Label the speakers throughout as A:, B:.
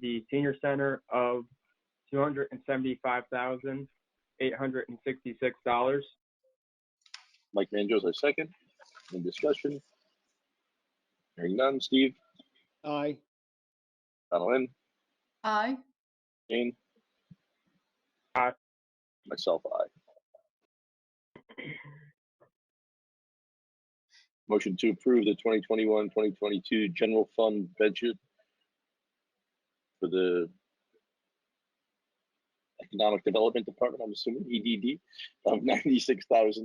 A: the senior center of two hundred and seventy-five thousand, eight hundred and sixty-six dollars.
B: Mike Manjos, I second. Any discussion? Hearing none. Steve,
C: aye,
B: Donaldin,
D: aye,
B: Jane?
A: Aye.
B: Myself, aye. Motion to approve the 2021, 2022 general fund budget for the Economic Development Department, I'm assuming, EDD, of $96,800.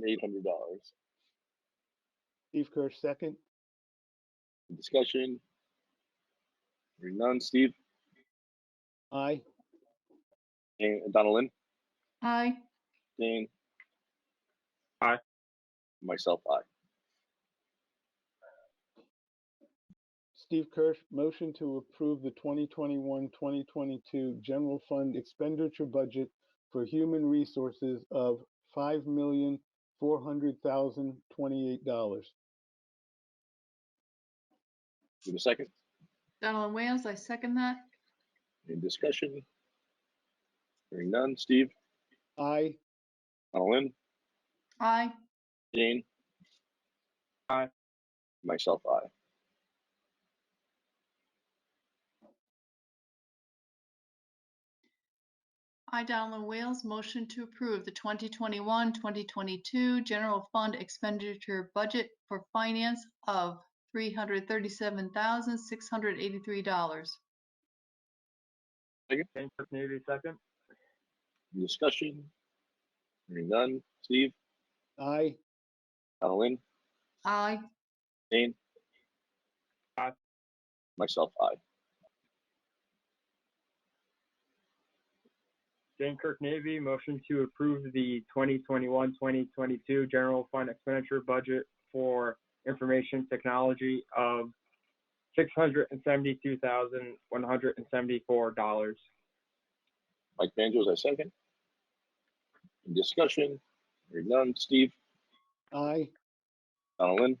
C: Steve Kirsch, second,
B: Discussion? Hearing none. Steve,
C: aye,
B: Jane, Donaldin?
D: aye,
B: Dane?
A: Aye.
B: Myself, aye.
C: Steve Kirsch, motion to approve the 2021, 2022 general fund expenditure budget for human resources of five million, four hundred thousand, twenty-eight dollars.
B: Give a second.
D: Donald Wales, I second that,
B: Any discussion? Hearing none. Steve,
C: Aye,
B: Colin,
D: aye,
B: Jane?
A: Aye.
B: Myself, aye.
D: I, Donald Wales, motion to approve the 2021, 2022 general fund expenditure budget for finance of $337,683.
A: Jane Kirk Navy, second.
B: Any Discussion? Hearing none. Steve,
C: aye,
B: Colin,
D: Aye,
B: Jane?
A: Aye.
B: Myself, aye.
A: Jane Kirk Navy, motion to approve the 2021, 2022 general fund expenditure budget for information technology of six hundred and seventy-two thousand, one hundred and seventy-four dollars.
B: Mike Manjos, I second. Any Discussion? Hearing none. Steve,
C: aye,
B: Colin,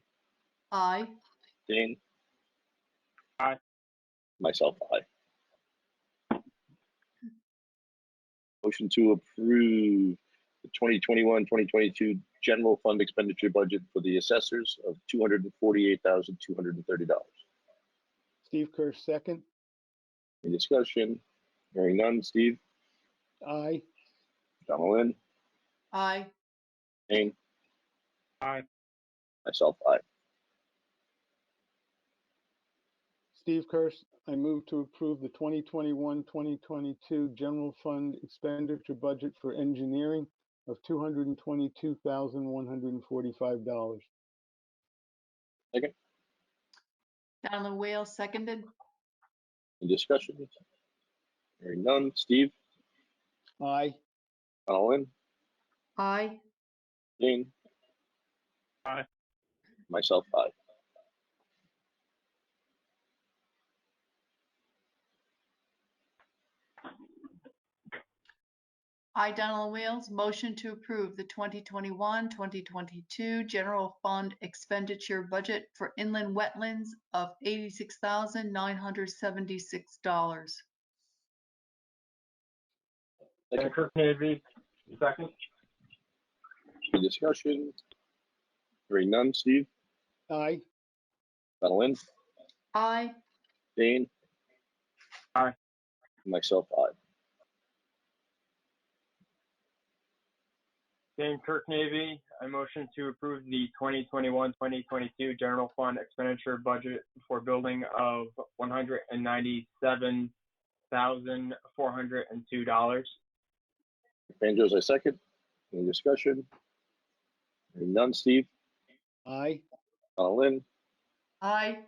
D: aye,
B: Jane?
A: Aye.
B: Myself, aye. Motion to approve the 2021, 2022 general fund expenditure budget for the assessors of $248,230.
C: Steve Kirsch, second,
B: Any discussion? Hearing none. Steve,
C: aye,
B: Donaldin,
D: aye,
B: Jane?
A: Aye.
B: Myself, aye.
C: Steve Kirsch, I move to approve the 2021, 2022 general fund expenditure budget for engineering of $222,145.
D: Donald Wales, seconded,
B: Any discussion? Hearing none. Steve,
C: Aye,
B: Donaldin,
D: aye,
B: Jane?
A: Aye.
B: Myself, aye.
D: I, Donald Wales, motion to approve the 2021, 2022 general fund expenditure budget for inland wetlands of $86,976.
A: Jane Kirk Navy, second.
B: Any discussion? Hearing none. Steve,
C: aye,
B: Donaldin,
D: Aye,
B: Dane?
A: Aye.
B: Myself, aye.
A: Jane Kirk Navy, I motion to approve the 2021, 2022 general fund expenditure budget for building of $197,402.
B: Banjos, I second. Any discussion? Hearing none. Steve,
C: aye,
B: Donaldin,
D: aye,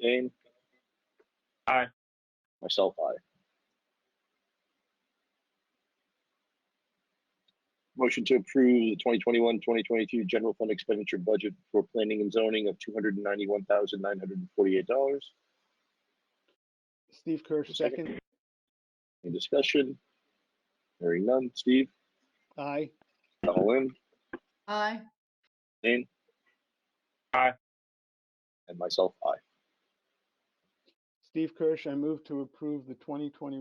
B: Dane?
A: Aye.
B: Myself, aye. Motion to approve the 2021, 2022 general fund expenditure budget for planning and zoning of $291,948.
C: Steve Kirsch,
B: Second.
C: second,
B: Any discussion? Hearing none. Steve,
C: aye,
B: Donaldin,
D: aye,
B: Dane?
A: Aye.
B: And myself, aye.
C: Steve Kirsch, I move to approve the 2021